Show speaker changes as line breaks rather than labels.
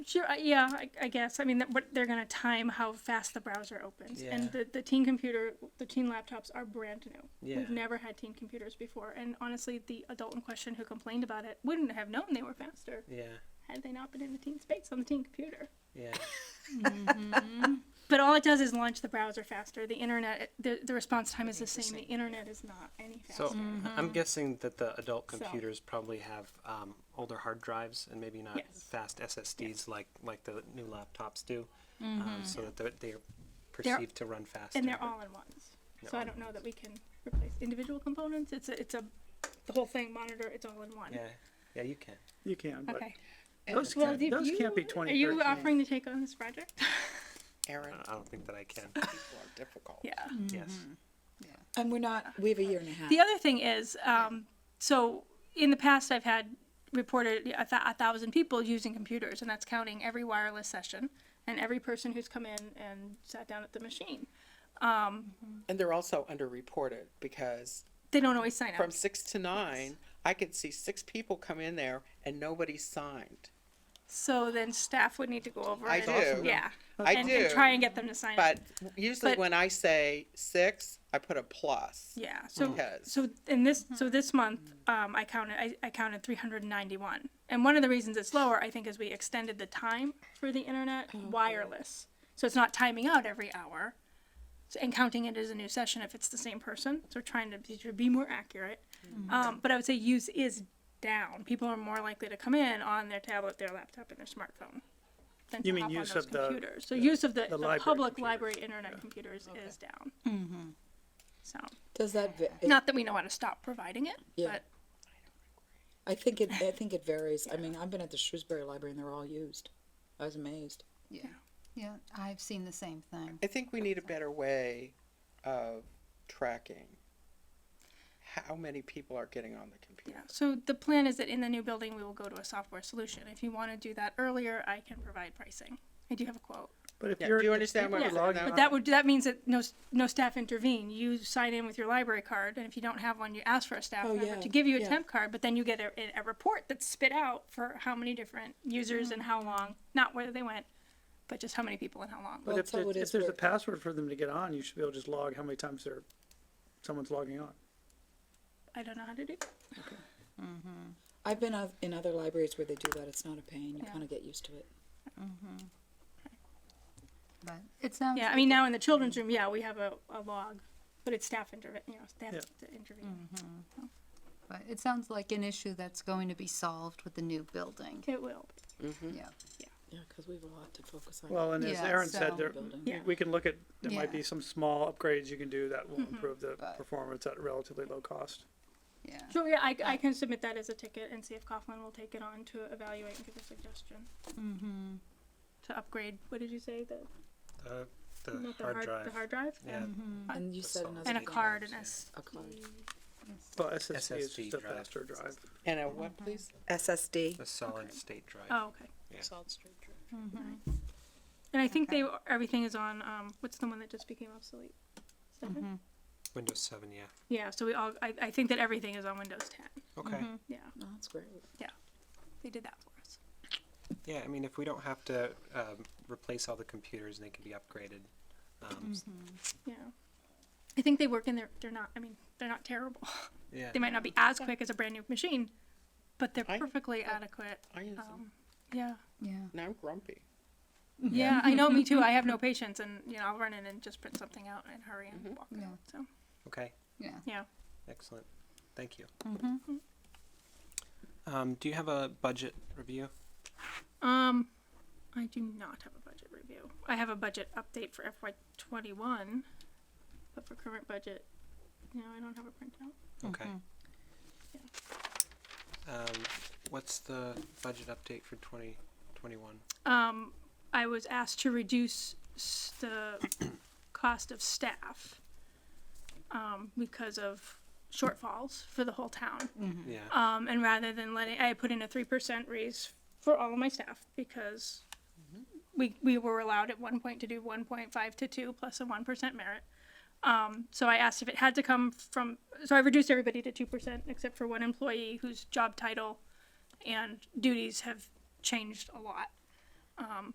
Sure, I- yeah, I, I guess. I mean, that- what they're gonna time how fast the browser opens,
Yeah.
and the, the teen computer, the teen laptops are brand new.
Yeah.
We've never had teen computers before, and honestly, the adult in question who complained about it wouldn't have known they were faster
Yeah.
had they not been in the teen space on the teen computer.
Yeah.
But all it does is launch the browser faster. The internet, the, the response time is the same. The internet is not any faster.
So I'm guessing that the adult
Mm-hmm. So-
computers probably have um, older hard drives and maybe not
Yes. Mm-hmm.
fast SSDs like like the new laptops do, um, so that they're, they're
They're-
perceived to run faster.
and they're all in ones. So I don't know that we can replace individual components. It's a, it's a, the whole thing monitor. It's all in one.
Yeah. Yeah, you can.
Mm-hmm.
You can, but
Okay.
those
Well,
can't,
did
those
you- uh,
can't be
Are
twenty
you
thirteen.
offering to take on this project?
Aaron,
I don't think that I can.
Ah. Mm-hmm.
people are difficult.
yeah.
Yes.
And we're not, we have a year and a half.
Mm-hmm. The other thing is, um, so in the past, I've had reported a, th- a thousand people using computers, and that's counting every wireless session and every person who's come in and sat down at the machine.
And they're also underreported because
They don't always sign up.
from six to nine, I could see six people come in there and nobody signed.
So then staff would need to go over
I
and,
do.
yeah,
I
and,
do.
and try and get them to sign up.
But usually
But-
when I say six, I put a plus.
Yeah. So
Because-
so in this so this month um, I counted I, I counted 391, and one of the reasons it's lower I think is we extended the time for the internet wireless, so it's not timing out every hour, so, and counting it as a new session if it's the same person. So we're trying to be, to be more accurate, um, but I would say use is down. People are more likely to come in on their tablet, their laptop, and their smartphone. Than
You
to
mean
hop on
use
those
of the-
computers. so use of the, the,
library
public
computers.
library internet computers is down. Mm-hmm. So
Does that, va- it-
not that we know how to stop providing it,
Yeah.
but
I think it, I think it varies. I mean, I've been at the Shrewsbury Library and they're all used. I was amazed.
Yeah, yeah, I've seen the same thing.
I think we need a better way of tracking how many people are getting on the computer.
yeah. So the plan is that in the new building, we will go to a software solution. If you want to do that earlier, I can provide pricing. I do have a quote.
But if
Yeah,
you're.
do you
if
understand
you
what
were
I'm
logging
saying?
But that would, that means that no, s- no staff intervene. You sign in with your library card, and if you don't have one, you ask for a staff
Oh,
member
yeah,
to give you a
yeah.
temp card, but then you get a, a- a report that's spit out for how many different
Mm-hmm.
users and how long, not where they went, but just how many people and how long.
But
Well,
if,
that's how
there's-
it
if
is
there's a
where-
password for them to get on, you should be able to just log how many times they're, someone's logging on.
I don't know how to do. that.
I've been oth- in other libraries where they do that. It's not a pain. You
Yeah.
kind of get used to it.
But it sounds
Yeah, I mean, now in the children's room, yeah, we have a, a log, but it's staff intervene, you know, staff
Yeah.
to intervene.
but it sounds like an issue that's going to be solved with the new building.
It will. Mm-hmm.
Yeah.
Yeah, because we have a lot to focus on.
Well, and as
Yeah,
Aaron said,
so-
there,
Building.
we-
Yeah.
we can look at, there might
Yeah.
be some small upgrades you can do that will improve the
But-
performance at relatively low cost.
Yeah.
Sure, yeah, I, I can submit that as a ticket and see if Coughlin will take it on to evaluate and give a suggestion. Mm-hmm, To upgrade, what did you say, the,
The, the,
not the
hard,
hard,
drive.
the hard um, drive?
Yeah.
mm-hmm.
And you said another.
And a Mm-hmm.
thing.
card and a, s-
A card.
Mm-hmm,
Well, SSD is
SSD
just a
drive.
faster drive.
And a what, please?
SSD.
The solid state drive.
oh, okay.
Solid state drive.
mm-hmm.
And I think they, everything is on, um, what's the one that just became obsolete? Is that it?
Windows 7, yeah.
Yeah, so we all, I, I think that everything is on Windows ten,
Okay.
yeah,
No, Oh, that's great.
Mm-hmm. they did that for us.
Yeah, I mean, if we don't have to um, replace all the computers and they can be upgraded, um,
Mm-hmm.
s-
Yeah. I think they work in their, they're not, I mean, they're not terrible.
yeah.
They might not be as quick as a brand new machine, but they're
I-
perfectly adequate.
I use them.
Um, yeah.
Yeah.
Now I'm grumpy.
Yeah, I know, me too. I have no patience and, you know, I'll run in and just print something out and hurry and walk
Yeah.
out. So,
Okay.
Yeah.
yeah.
Excellent. Thank you. Um, do you have a budget review?
Um, I do not have a budget review. I have a budget update for FY twenty-one, but for current budget, no, I don't have a printout.
Okay. Um, what's the budget update for 2021?
um, I was asked to reduce s- the cost of staff um, because of shortfalls for the whole town.
Yeah.
Um, and rather than letting, I put in a three percent raise for all of my staff because we, we were allowed at one point to do one point five to two plus a one percent merit. Um, so I asked if it had to come from, so I reduced everybody to two percent except for one employee whose job title and duties have changed a lot.